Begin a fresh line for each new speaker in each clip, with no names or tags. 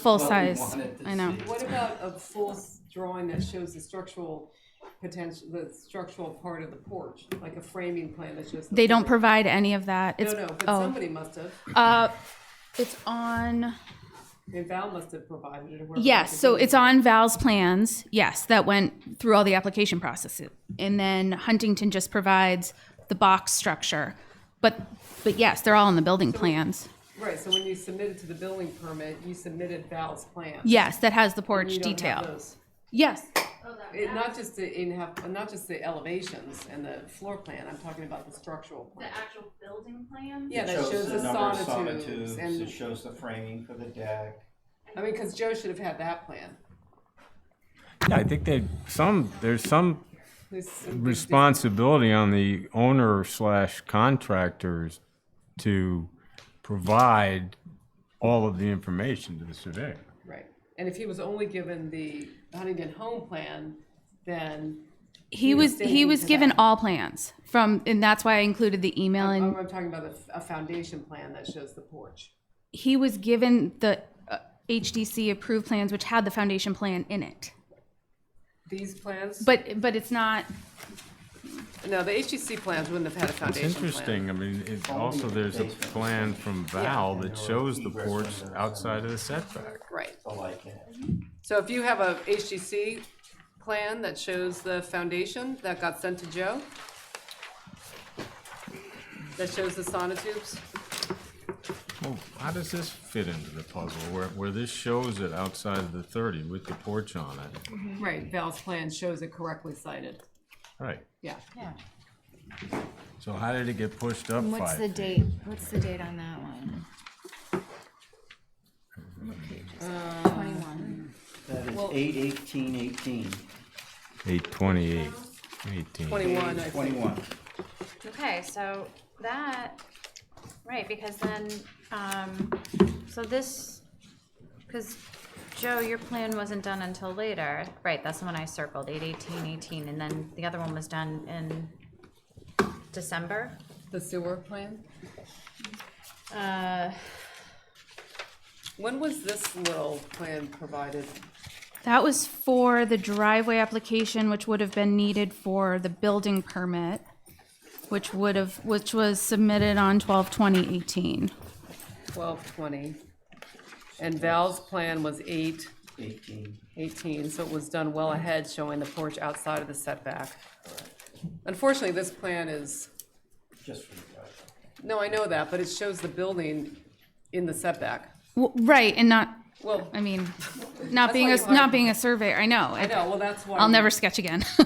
Full
what we
size.
wanted to
I know.
see.
What about a full s- drawing that shows the structural potential, the structural part of the porch, like a framing plan that shows? the
They don't
porch?
provide any of that. It's
No, no, but
oh,
somebody must have,
uh, it's on.
I mean, Val must have provided it. or whoever
Yes,
was
so
doing
it's
it.
on Val's plans. Yes, that went through all the application processes, and then Huntington just provides the box structure. But but yes, they're all in the building plans.
Right, so when you submitted to the building permit, you submitted Val's plan.
Yes, that has the porch
You don't have
detail.
those.
Yes,
It, not just the in have, not just the elevations and the floor plan, I'm talking about the structural
The
plan.
actual building plan?
Yeah, that
Shows
shows the
number of
sonotubes
It
and,
shows the framing for the deck.
I mean, cause Joe should have had that plan.
Yeah, I think they, some, there's some
This-
responsibility on the owner slash contractors to provide all of the information to the surveyor.
Right, and if he was only given the Huntington home plan, then,
he was he
standing
was
to
given
that.
all plans from, and that's why I included the email.
I'm
And
I'm talking about a, a foundation plan that shows the porch.
he was given the uh, HDC approved plans, which had the foundation plan in it.
These plans,
But but it's not.
no, the HGC plans wouldn't have had a
It's
foundation plan.
interesting, I mean, it, also, there's a plan from Val that shows the porch outside of the setback.
Right,
I like it.
so if you have a HGC plan that shows the foundation that got sent to Joe, that shows the sonotubes,
Well, how does this fit into the puzzle, where, where this shows it outside of the thirty with the porch on it?
right, Val's plan shows it correctly cited,
Right,
yeah.
Yeah.
so how did it get pushed up
And What's the
five?
date? What's the date on that one? What page is that? Twenty-one.
That is eight eighteen eighteen.
Eight twenty-eight, eighteen.
Twenty-one, I think,
Twenty-one.
Okay, so that,
Right, because then, um, so this, because Joe, your plan wasn't done until later. Right, that's the one I circled, eight eighteen eighteen, and then the other one was done in December.
the sewer plan?
Uh,
When was this little plan provided?
That was for the driveway application, which would have been needed for the building permit, which would have, which was submitted on twelve twenty eighteen.
Twelve twenty. And Val's plan was eight
Eighteen.
eighteen, so it was done well ahead, showing the porch outside of the setback. Unfortunately, this plan is,
Just for the deck.
no, I know that, but it shows the building in the setback.
Right, and not,
Well,
I mean, not being,
why
a
you
not
are-
being a surveyor, I know.
I know, well, that's why.
I'll never sketch again.
Just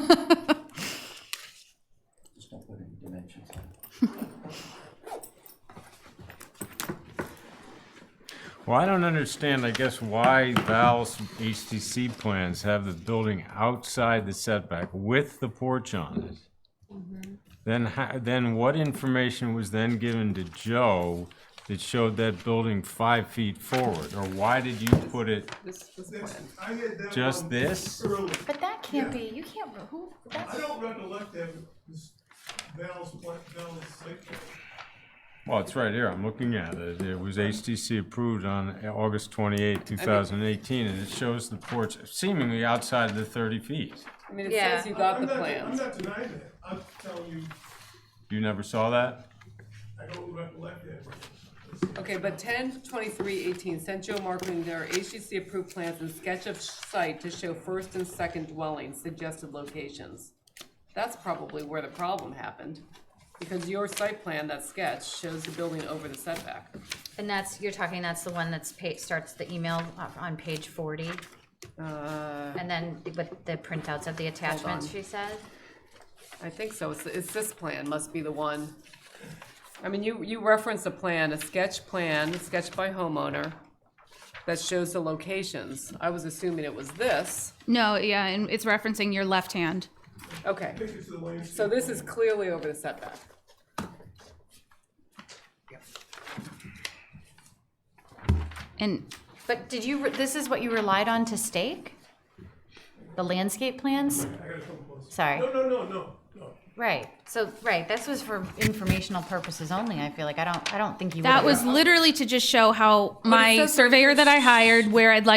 don't put any dimensions on it.
Well, I don't understand, I guess, why Val's HTC plans have the building outside the setback with the porch on it. Then, ho- then what information was then given to Joe that showed that building five feet forward? Or why did you put it
This, this plan.
I had that
just
one
this?
early.
but that can't be, you can't, who,
I
that's,
don't recollect that this Val's, pla- Val's site plan.
Well, it's right here, I'm looking at it. It was HTC approved on August 28, 2018, and it shows the porch seemingly outside of the 30 feet.
I mean, it
Yeah.
says you got
I'm
the
not- I'm
plans.
not denying that, I'm telling you,
You never saw that?
I don't recollect that.
Okay, but ten twenty-three eighteen, sent Joe Markman their HGC approved plans and sketch of site to show first and second dwellings, suggested locations. That's probably where the problem happened, because your site plan, that sketch, shows the building over the setback.
and that's, you're talking, that's the one that's pa, starts the email up on page forty,
Uh,
and then with the printouts of the attachments,
on.
she said?
I think so, it's, it's this plan, must be the one. I mean, you, you reference a plan, a sketch plan, sketched by homeowner, that shows the locations. I was assuming it was this,
No, yeah, and it's referencing your left hand.
okay.
Take it to the landscape.
So this is clearly over the setback.
And
But did you, re- this is what you relied on to stake? The landscape plans?
I gotta come close.
Sorry.
No, no, no, no, no.
Right, so, right, this was for informational purposes only, I feel like, I don't, I don't think you would
That was literally to just show how my surveyor that I hired, where I'd like